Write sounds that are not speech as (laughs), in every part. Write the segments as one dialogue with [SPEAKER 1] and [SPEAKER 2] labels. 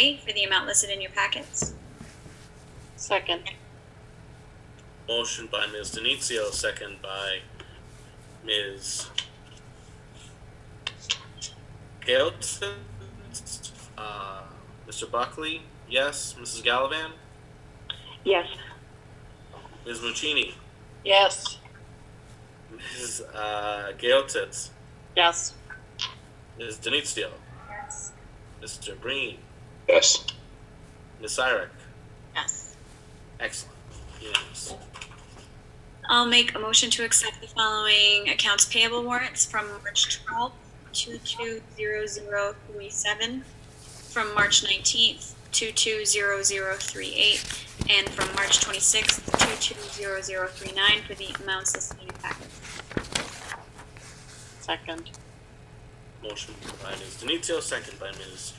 [SPEAKER 1] A for the amount listed in your packets.
[SPEAKER 2] Second.
[SPEAKER 3] Motion by Ms. Denizio, second by Ms. Gelton. Uh, Mr. Buckley, yes. Mrs. Gallivan,
[SPEAKER 2] Yes.
[SPEAKER 3] Ms. Muccini,
[SPEAKER 2] Yes.
[SPEAKER 3] Ms. Uh, Gelton,
[SPEAKER 2] Yes.
[SPEAKER 3] Ms. Denizio,
[SPEAKER 1] Yes.
[SPEAKER 3] Mr. Breen,
[SPEAKER 4] Yes.
[SPEAKER 3] Ms. Syrek.
[SPEAKER 2] Yes.
[SPEAKER 3] Excellent. Yes.
[SPEAKER 1] I'll make a motion to accept the following accounts payable warrants from March 12th, 220037, from March 19th, 220038, and from March 26th, 220039 for the amounts listed in your packets.
[SPEAKER 2] Second.
[SPEAKER 3] Motion by Ms. Denizio, second by Ms.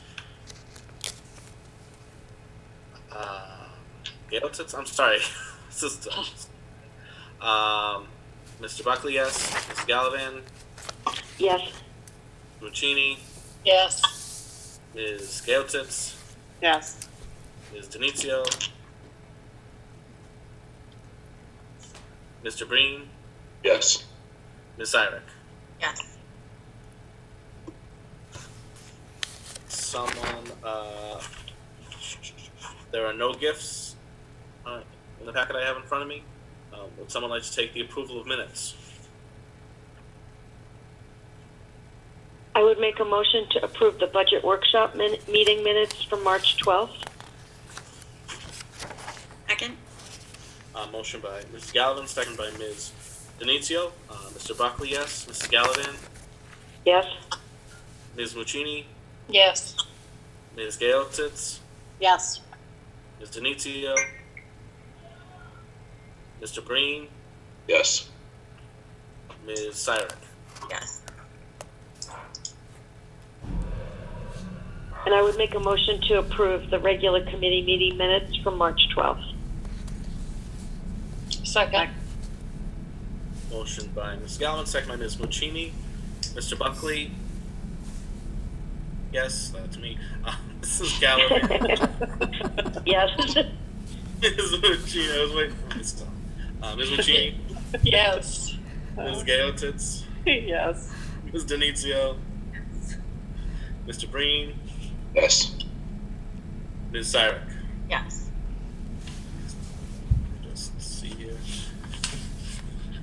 [SPEAKER 3] Uh, Geltitz? I'm sorry. (laughs) this is um, Mr. Buckley, yes. Ms. Gallivan,
[SPEAKER 2] Yes.
[SPEAKER 3] Muccini,
[SPEAKER 2] Yes.
[SPEAKER 3] Ms. Geltitz,
[SPEAKER 2] Yes.
[SPEAKER 3] Ms. Denizio, Mr. Breen,
[SPEAKER 4] Yes.
[SPEAKER 3] Ms. Irick.
[SPEAKER 2] Yes.
[SPEAKER 3] Someone, uh, there are no gifts uh, in the packet I have in front of me. Um, would someone like to take the approval of minutes?
[SPEAKER 5] I would make a motion to approve the budget workshop min- meeting minutes from March 12th.
[SPEAKER 1] Second?
[SPEAKER 3] Uh, motion by Mrs. Gallivan, second by Ms. Denizio. Uh, Mr. Buckley, yes. Mrs. Gallivan,
[SPEAKER 5] Yes?
[SPEAKER 3] Ms. Muccini,
[SPEAKER 2] Yes.
[SPEAKER 3] Ms. Gale Tits,
[SPEAKER 2] Yes.
[SPEAKER 3] Ms. Denizio, Mr. Breen,
[SPEAKER 4] Yes.
[SPEAKER 3] Ms. Syrek.
[SPEAKER 2] Yes.
[SPEAKER 5] And I would make a motion to approve the regular committee meeting minutes from March 12th.
[SPEAKER 2] Second.
[SPEAKER 3] Motion by Ms. Gallivan, second by Ms. Muccini. Mr. Buckley, yes, that's me. Uh, (laughs) Mrs.
[SPEAKER 5] (laughs)
[SPEAKER 3] Gallivan,
[SPEAKER 5] Yes?
[SPEAKER 3] Ms. Muccini, I was waiting for myself. Uh, Ms. Muccini,
[SPEAKER 2] Yes. (laughs)
[SPEAKER 3] Ms. Gale Tits,
[SPEAKER 2] Yes.
[SPEAKER 3] Ms. Denizio, Mr. Breen,
[SPEAKER 4] Yes.
[SPEAKER 3] Ms. Syrek.
[SPEAKER 2] Yes.
[SPEAKER 3] Just see here.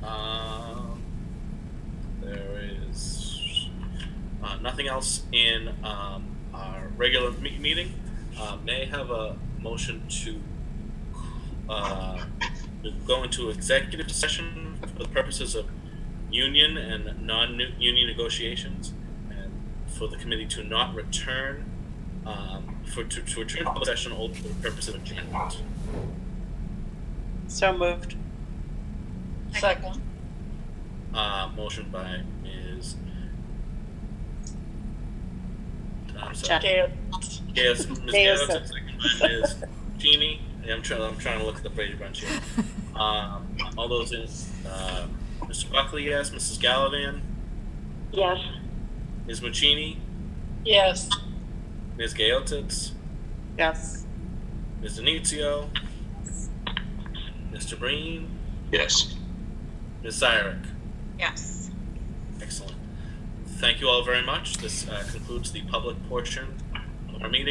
[SPEAKER 3] Um, there is uh, nothing else in um, our regular me- meeting. Uh, may I have a motion to uh, to go into executive session for the purposes of union and non-union negotiations, and for the committee to not return um, for to, to return to the session only for the purpose of adjournment.
[SPEAKER 2] So moved. Second.
[SPEAKER 3] Uh, motion by Ms. I'm sorry.
[SPEAKER 2] Yes.
[SPEAKER 3] Yes, Ms. Gales, and second by Ms. Genie. Yeah, I'm trying, I'm trying to look at the Brady Bunch here. Um, all those in, uh, Mr. Buckley, yes, Mrs. Gallivan,
[SPEAKER 5] Yes?
[SPEAKER 3] Ms. Muccini,
[SPEAKER 2] Yes.
[SPEAKER 3] Ms. Gaeltitz,
[SPEAKER 2] Yes.
[SPEAKER 3] Ms. Denizio, Mr. Breen,
[SPEAKER 4] Yes.
[SPEAKER 3] Ms. Syrek.
[SPEAKER 2] Yes.
[SPEAKER 3] Excellent. Thank you all very much. This, uh, concludes the public portion of our meeting.